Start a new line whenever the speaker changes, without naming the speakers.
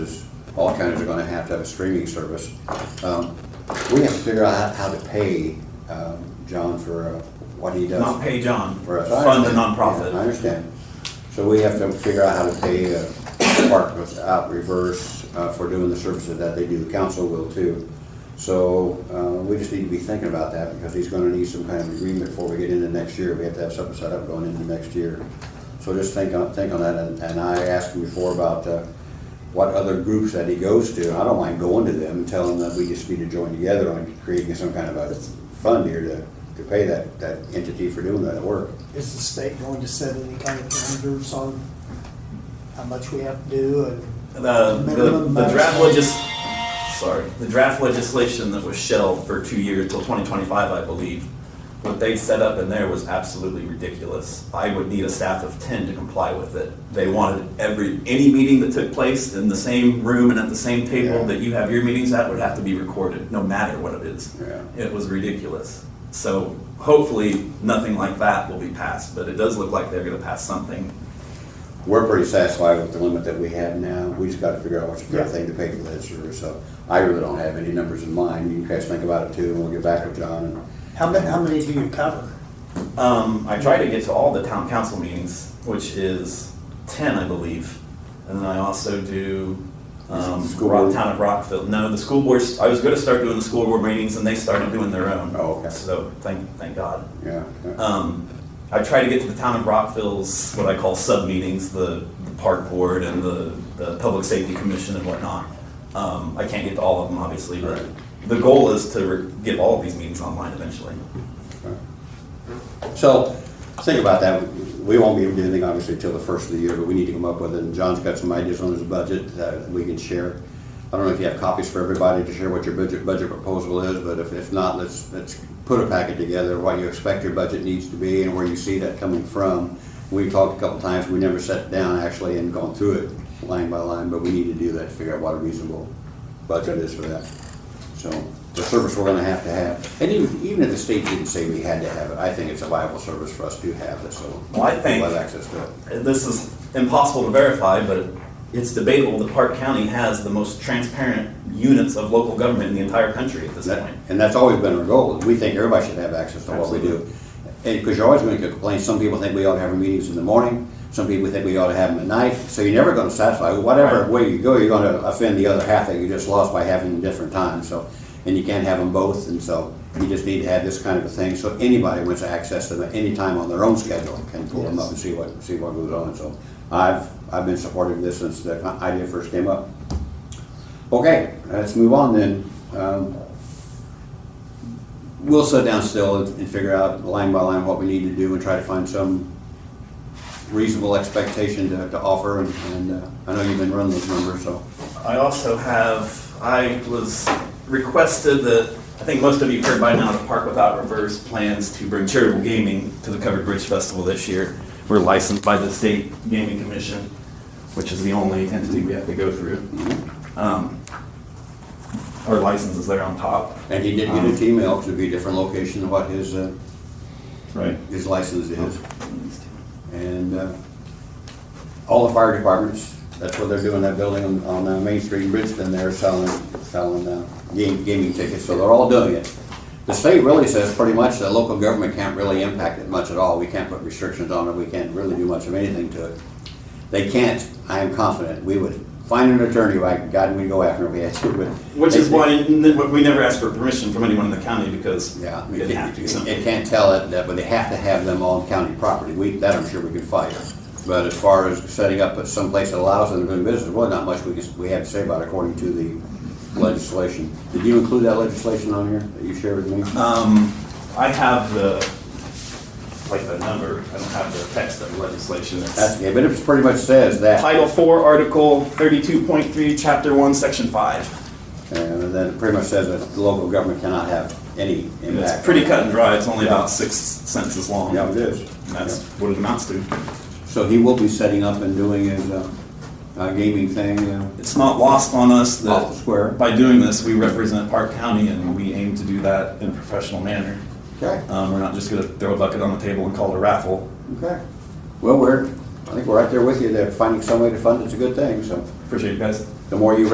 all counties are gonna have to have a streaming service. Um, We have to figure out how how to pay um, John for uh, what he does.
Not pay John,
for us. I
fund the
understand. Yeah, I
nonprofit.
understand. So we have to figure out how to pay uh, Park without reverse uh, for doing the services that they do. The council will too. So uh, we just need to be thinking about that because he's going to need some kind of agreement before we get into next year. We have to have something set up going into next year. So just think on, think on that. And- And I asked him before about uh, what other groups that he goes to. I don't mind going to them and telling them that we just need to join together on creating some kind of a fund here to, to pay that, that entity for doing that work.
Is the state going to set any kind of parameters on how much we have to do and?
The, the,
Minimum
the draft
maximum.
legis, sorry, the draft legislation that was shelved for two years till twenty twenty-five, I believe, what they set up in there was absolutely ridiculous. I would need a staff of ten to comply with it. They wanted every, any meeting that took place in the same room and at the same
Yeah.
table that you have your meetings at would have to be recorded, no matter what it is.
Yeah.
It was ridiculous. So hopefully, nothing like that will be passed, but it does look like they're gonna pass something.
We're pretty satisfied with the limit that we have now. We just gotta figure out what's the fair thing to pay for that service, so I really don't have any numbers in mind. You guys think about it too, and we'll get back with John and.
How many, how many do you cover?
Um, I try to get to all the town council meetings, which is ten, I believe, and then I also do um,
Is it the school
Rock,
board?
town of Rockville. No, the school boards. I was going to start doing the school board meetings, and they started doing their own.
Oh, okay.
So thank thank God.
Yeah, yeah.
Um, I try to get to the town of Rockville's what I call sub meetings, the, the park board and the, the public safety commission and whatnot. Um, I can't get to all of them, obviously, but the goal is to re- get all of these meetings online eventually.
So, think about that. We won't be able to do anything obviously until the first of the year, but we need to come up with it. And John's got some ideas on his budget that we can share. I don't know if you have copies for everybody to share what your budget, budget proposal is, but if, if not, let's, let's put a packet together, what you expect your budget needs to be and where you see that coming from. We talked a couple times, we never sat down actually and gone through it line by line, but we need to do that, to figure out what a reasonable budget is for that. So the service we're gonna have to have, and even, even if the state didn't say we had to have it, I think it's a viable service for us to have it, so.
Well, I think-
We'll have access to it.
this is impossible to verify, but it's debatable that Park County has the most transparent units of local government in the entire country at this
That-
point.
And that's always been our goal, is we think everybody should have access to what we do. And, because you're always gonna get complaints, some people think we ought to have our meetings in the morning, some people think we ought to have them at night, so you're never gonna satisfy, whatever
Right.
way you go, you're gonna offend the other half that you just lost by having them different times, so. And you can't have them both, and so you just need to have this kind of a thing, so anybody wants to access them at any time on their own schedule can pull them up and see what, see what goes on, so. I've, I've been supporting this since the idea first came up. Okay, let's move on then. Um, We'll sit down still and and figure out line by line what we need to do and try to find some reasonable expectation to, to offer. And, and uh, I know you've been running those numbers, so.
I also have, I was requested that, I think most of you have heard by now, the Park Without Reverse plans to bring charitable gaming to the Covered Bridge Festival this year. We're licensed by the State Gaming Commission, which is the only entity we have to go through. Um, Our license is there on top.
And he did get
Um,
an email, because it'd be a different location than what his, uh,
Right.
his license is. And uh, all the fire departments, that's what they're doing, that building on, on uh, Main Street in Bridgeton, they're selling, selling uh, game- gaming tickets, so they're all doing it. The state really says pretty much that local government can't really impact it much at all, we can't put restrictions on it, we can't really do much of anything to it. They can't, I am confident, we would find an attorney, like, God, we'd go after him, if we had to, but.
Which is why n- we never asked for permission from anyone in the county because
Yeah,
we
it
didn't have to.
can't,
so.
it can't tell it, that- but they have to have them on county property. We, that I'm sure we could fight. But as far as setting up someplace that allows them to do business, well, not much we can, we have to say about it according to the legislation. Did you include that legislation on here that you shared with me?
Um, I have the, like the number, I don't have the text of the legislation. It's
That's, yeah, but it pretty much says that,
Title Four, Article thirty-two point three, Chapter One, Section Five.
and then it pretty much says that the local government cannot have any
And
impact.
It's pretty cut and dry, it's only
Yeah.
about six sentences long.
Yeah, it is.
And that's what it amounts to.
So he will be setting up and doing his, uh, uh, gaming thing, uh,
It's not lost on
off
us
the
that
Oh, square.
by doing this, we represent Park County and we aim to do that in a professional manner.
Okay.
Um, we're not just gonna throw a bucket on the table and call it a raffle.
Okay. Well, we're, I think we're right there with you, that finding some way to fund it's a good thing, so
Appreciate you guys.
the more you